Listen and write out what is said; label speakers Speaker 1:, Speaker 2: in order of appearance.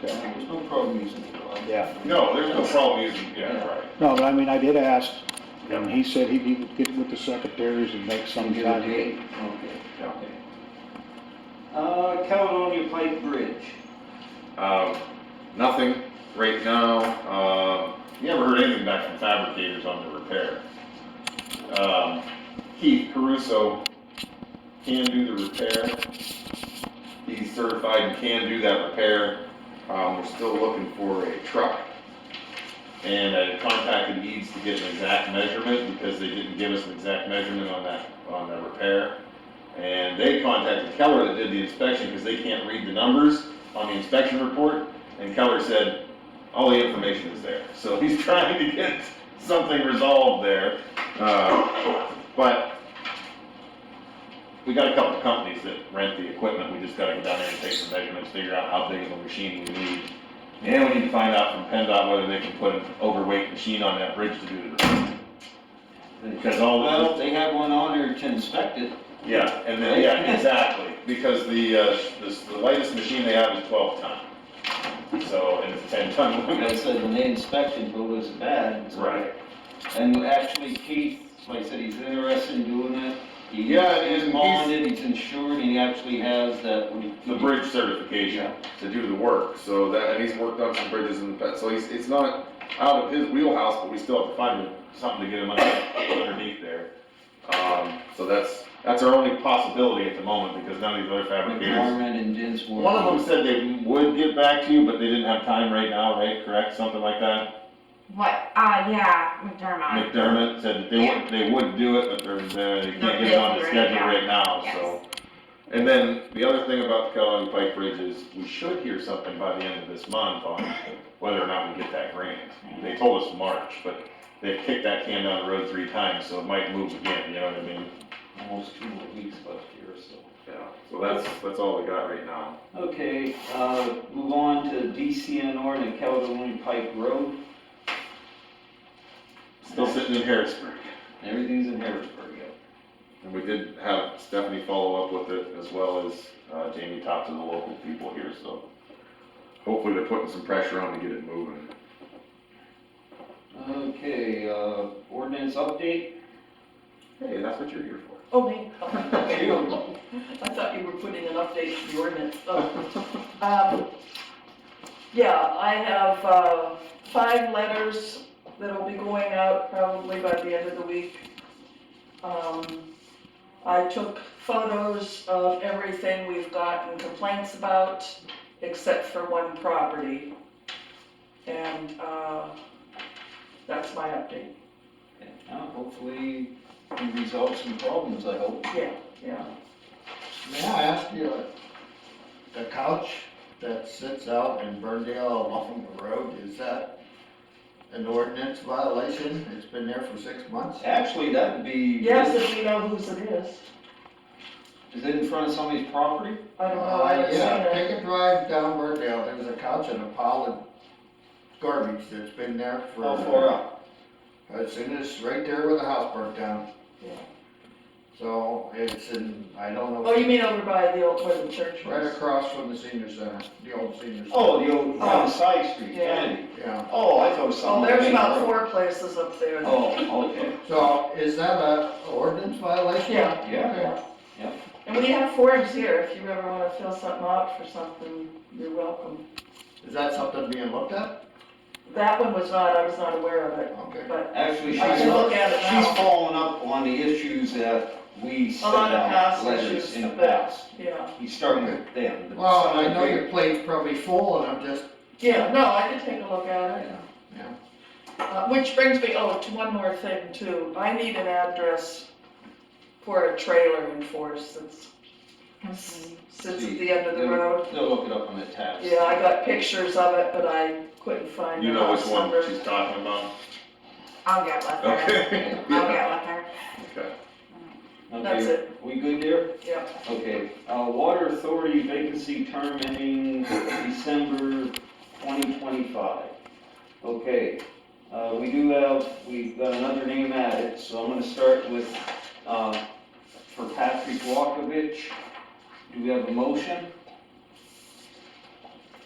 Speaker 1: There's no problem using it, though.
Speaker 2: Yeah,
Speaker 3: No, there's no problem using, yeah, right.
Speaker 2: no, but I mean, I did ask, and he said he'd be- get with the secretaries and make some
Speaker 4: Give
Speaker 2: kind of.
Speaker 4: it a date. Okay,
Speaker 3: Yeah.
Speaker 4: okay. Uh, Caledonia Pike Bridge.
Speaker 3: Um, nothing right now. Um, you haven't heard anything back from fabricators on the repair. Um, Keith Caruso can do the repair. He's certified and can do that repair. Um, we're still looking for a truck. And I contacted Eads to get an exact measurement because they didn't give us an exact measurement on that, on that repair. And they contacted Keller that did the inspection because they can't read the numbers on the inspection report, and Keller said, all the information is there. So he's trying to get something resolved there. Uh, But we got a couple of companies that rent the equipment, we just gotta go down there and take some measurements, figure out how big of a machine we need. And we need to find out from PennDOT whether they can put an overweight machine on that bridge to do the repair. Because all, the-
Speaker 4: Well, they have one on there to inspect it.
Speaker 3: yeah, and then, yeah, exactly, because the, uh, this, the lightest machine they have is twelve ton. So, and it's a ten ton
Speaker 4: Like I
Speaker 3: limit.
Speaker 4: said, when they inspected, it was bad. and so-
Speaker 3: Right.
Speaker 4: And actually Keith, like I said, he's interested in doing it. He-
Speaker 3: Yeah, and he's-
Speaker 4: He's bonded, he's insured, and he actually has that. when he-
Speaker 3: The bridge certification to do the work, so that, and he's worked on some bridges in the past, so he's, it's not out of his wheelhouse, but we still have to find him something to get him under- underneath there. Um, so that's, that's our only possibility at the moment, because none of these other fabricators.
Speaker 4: McDermott and Dinsmore.
Speaker 3: One of them said they would get back to you, but they didn't have time right now, right, correct, something like that?
Speaker 5: What? Uh, yeah, McDermott.
Speaker 3: McDermott said that they would, they would do it, but they're, they can't get it on the schedule right now, so. And then the other thing about the Kellogg Pike Bridge is we should hear something by the end of this month on whether or not we get that grant. They told us March, but they've kicked that can down the road three times, so it might move again, you know what I mean?
Speaker 4: Almost two more weeks left here, so.
Speaker 3: Yeah, so that's, that's all we got right now.
Speaker 4: Okay, uh, move on to DCNR and the Caledonia Pike Road.
Speaker 3: Still sitting in Harrisburg.
Speaker 4: Everything's in Harrisburg, yeah.
Speaker 3: And we did have Stephanie follow up with it as well as uh, Jamie talked to the local people here, so hopefully they're putting some pressure on to get it moving.
Speaker 4: Okay, uh, ordinance update?
Speaker 3: Hey, that's what you're here for.
Speaker 6: Oh, me. I thought you were putting an update to the ordinance. Oh. Um, Yeah, I have uh, five letters that'll be going out probably by the end of the week. Um, I took photos of everything we've gotten complaints about, except for one property. And uh, that's my update.
Speaker 4: Now, hopefully, we resolve some problems, I hope.
Speaker 6: Yeah, yeah.
Speaker 7: May I ask you, uh, the couch that sits out in Burndale along the road, is that an ordinance violation? It's been there for six months?
Speaker 4: Actually, that would be.
Speaker 6: Yes, if we know whose it is.
Speaker 4: Is it in front of somebody's property?
Speaker 6: I don't know, I
Speaker 7: Uh,
Speaker 6: haven't seen
Speaker 7: Yeah,
Speaker 6: it.
Speaker 7: take a drive down Burndale, there's a couch and a pile of garbage that's been there for.
Speaker 6: Oh,
Speaker 4: How far up?
Speaker 7: As soon as, right there where the house burnt down.
Speaker 6: Yeah.
Speaker 7: So it's in, I don't know.
Speaker 6: Oh, you mean over by the old, where the church
Speaker 7: Right
Speaker 6: was?
Speaker 7: across from the senior center, the old senior center.
Speaker 4: Oh, the old, on
Speaker 6: Oh.
Speaker 4: the side street, Kennedy.
Speaker 7: Yeah.
Speaker 4: Oh, I thought it was
Speaker 6: Oh,
Speaker 4: something.
Speaker 6: there's about four places up there.
Speaker 4: Oh, okay,
Speaker 7: So is that a ordinance violation?
Speaker 6: Yeah.
Speaker 4: yeah. Yeah.
Speaker 6: And we have forms here, if you ever wanna fill something out for something, you're welcome.
Speaker 7: Is that something being looked at?
Speaker 6: That one was not, I was not aware of it,
Speaker 7: Okay.
Speaker 6: but
Speaker 4: Actually, she's,
Speaker 6: I can look
Speaker 4: up-
Speaker 6: at it
Speaker 4: she's
Speaker 6: now.
Speaker 4: following up on the issues that we
Speaker 6: A
Speaker 4: sent
Speaker 6: lot of
Speaker 4: out
Speaker 6: past
Speaker 4: letters
Speaker 6: issues
Speaker 4: in the
Speaker 6: about-
Speaker 4: past.
Speaker 6: Yeah,
Speaker 4: He's starting with them. the-
Speaker 7: Well, and I know your plate's probably full and I'm just,
Speaker 6: yeah, no, I did take a look at it.
Speaker 7: Yeah,
Speaker 6: Uh, which brings me, oh, to one more thing too, I need an address for a trailer in Forest that's, sits at the end of the road.
Speaker 4: They'll look it up on the tabs.
Speaker 6: Yeah, I got pictures of it, but I couldn't find.
Speaker 3: You
Speaker 6: the
Speaker 3: know which
Speaker 6: house
Speaker 3: one
Speaker 6: number.
Speaker 3: she's talking about?
Speaker 5: I'll get with her.
Speaker 3: Okay.
Speaker 5: I'll
Speaker 3: Yeah,
Speaker 5: get with her.
Speaker 3: okay.
Speaker 4: Okay,
Speaker 6: That's it,
Speaker 4: We good there?
Speaker 6: yeah.
Speaker 4: Okay, uh, Water Authority vacancy term ending December twenty twenty-five. Okay, uh, we do have, we've got another name added, so I'm gonna start with, uh, for Patrick Walkovich. Do we have a motion?